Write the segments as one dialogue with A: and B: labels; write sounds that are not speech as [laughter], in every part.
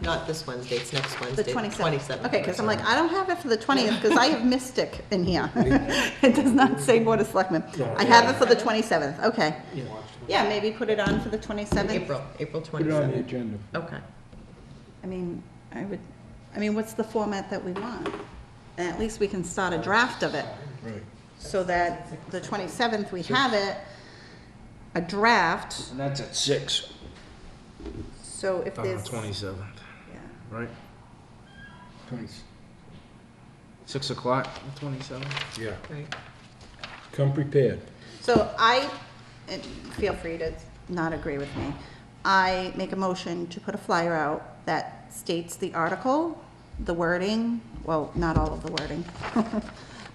A: not this Wednesday, it's next Wednesday.
B: The twenty-seventh. Okay, because I'm like, I don't have it for the twentieth, because I have Mystic in [laughs] here. It does not say Board of Selectmen. I have it for the twenty-seventh, okay. Yeah, maybe put it on for the twenty-seventh.
A: April, April
C: Put it on the
A: twenty-seventh.
C: agenda.
A: Okay.
B: I mean, I would, I mean, what's the format that we want? And at least we can start a draft of it,
C: Right.
B: so that the twenty-seventh, we have it, a draft,
C: And that's at six.
B: so if
D: On the
B: there's.
D: twenty-seventh,
B: yeah.
D: right? Six o'clock, twenty-seventh?
C: Yeah.
A: Right.
C: Come prepared.
B: So I, and feel free to not agree with me. I make a motion to put a flyer out that states the article, the wording, well, not all of the wording. [laughs]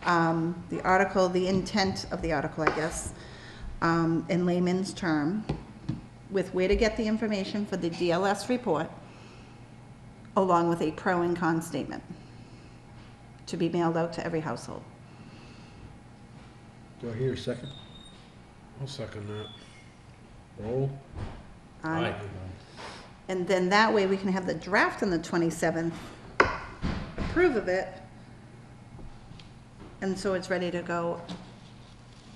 B: Um, The article, the intent of the article, I guess, um, in layman's term, with where to get the information for the DLS report, along with a pro and con statement, to be mailed out to every household.
C: Do I hear a second?
D: I'll second that.
C: Roll.
B: Um, And then that way we can have the draft on the 27th, approve of it. And so it's ready to go,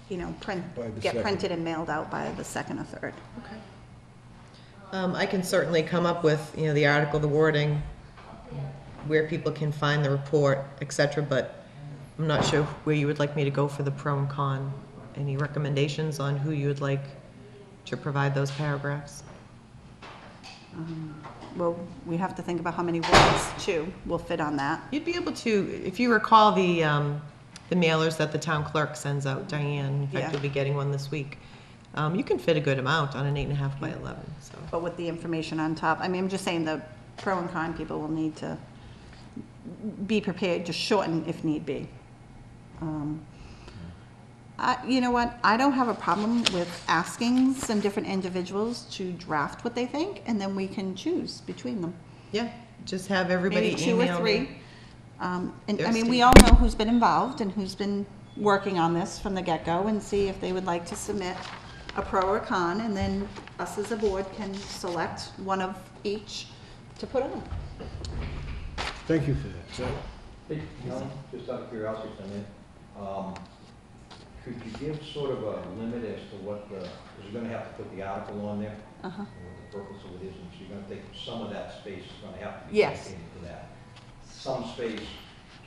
B: you know, print,
C: By the
B: get
C: second.
B: printed and mailed out by the second or third.
A: Okay. Um, I can certainly come up with, you know, the article, the wording, where people can find the report, et cetera, but I'm not sure where you would like me to go for the pro and con. Any recommendations on who you would like to provide those paragraphs?
B: Well, we have to think about how many words, too, will fit on that.
A: You'd be able to, if you recall the, um, the mailers that the town clerk sends out, Diane, in
B: Yeah.
A: fact, you'll be getting one this week. Um, you can fit a good amount on an eight and a half by eleven, so.
B: But with the information on top, I mean, I'm just saying the pro and con people will need to be prepared, just shorten if need be. Um, I, you know what, I don't have a problem with asking some different individuals to draft what they think, and then we can choose between them.
A: Yeah, just have everybody
B: Maybe two or
A: email
B: three.
A: me.
B: Um, And, I mean,
A: Thursday.
B: we all know who's been involved and who's been working on this from the get-go, and see if they would like to submit a pro or con, and then us as a board can select one of each to put on.
C: Thank you for that. So,
E: Hey, Helen, just out of curiosity, I mean, um, could you give sort of a limit as to what the, because you're gonna have to put the article on there,
B: Uh-huh.
E: and what the purpose of it is, and so you're gonna think some of that space is gonna have to be
B: Yes.
E: dedicated to that. Some space is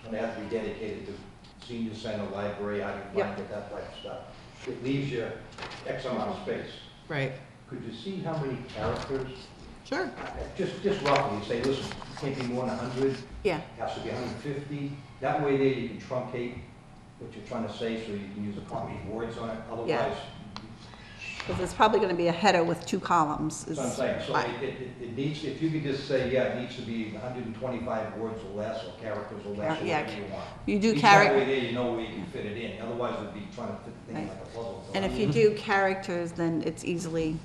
E: gonna have to be dedicated to senior center, library, I can
B: Yep.
E: find it, that type of stuff. It leaves you X amount of space.
A: Right,
E: Could you see how many characters,
B: Sure.
E: just, just roughly, say, listen, can't be more than a hundred,
B: Yeah,
E: has to be 150. That way there you can truncate what you're trying to say, so you can use appropriate words on it. Otherwise,
B: because it's probably going to be a header with two columns.
E: that's what I'm
B: is-
E: saying. So
B: Right.
E: it- it, it- it needs, if you could just say, yeah, it needs to be 125 words or less, or characters or less, or
B: Yeah,
E: whatever you want.
B: You do
E: At least
B: charac-
E: That way there you know where you can fit it in. Otherwise, it'd be trying to fit the thing
B: Right.
E: like a puzzle. So
B: And
E: I
B: if
E: mean,
B: you do characters, then it's easily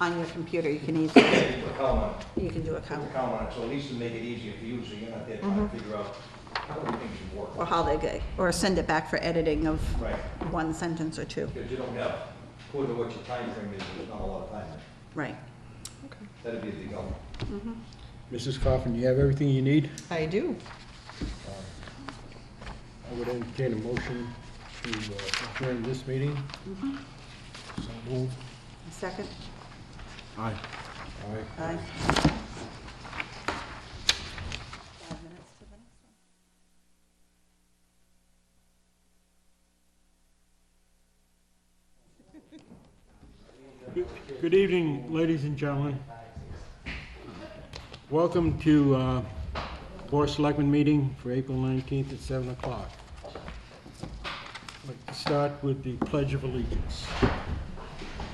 B: on your computer, you can easily,
E: you Put a column on it,
B: you can do a
E: put a
B: count,
E: column on it, so at least to make it easier for you, so you're not there trying
B: Mm-hmm.
E: to figure out how everything should work.
B: or how they go, or send it back for editing of
E: Right.
B: one sentence or two.
E: Because you don't have, according to what your time frame is, there's not a lot of time there.
B: Right.
E: That'd be the goal.
C: Mrs. Coffin, you have everything you need?
A: I do.
C: I would entertain a motion to uh, adjourn this meeting. Mm-hmm. So moved.
B: Second?
D: Aye.
C: All right.
B: Aye.
F: Good evening, ladies and gentlemen. Welcome to uh, Board of Selectmen meeting for April 19th at 7 o'clock. I'd like to start with the Pledge of Allegiance.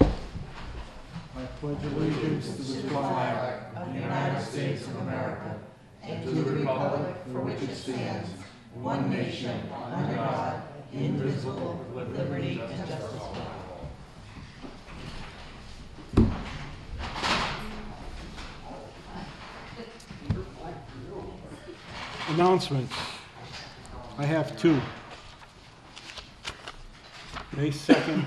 F: I pledge allegiance to the flag Announcements. I have two. May 2nd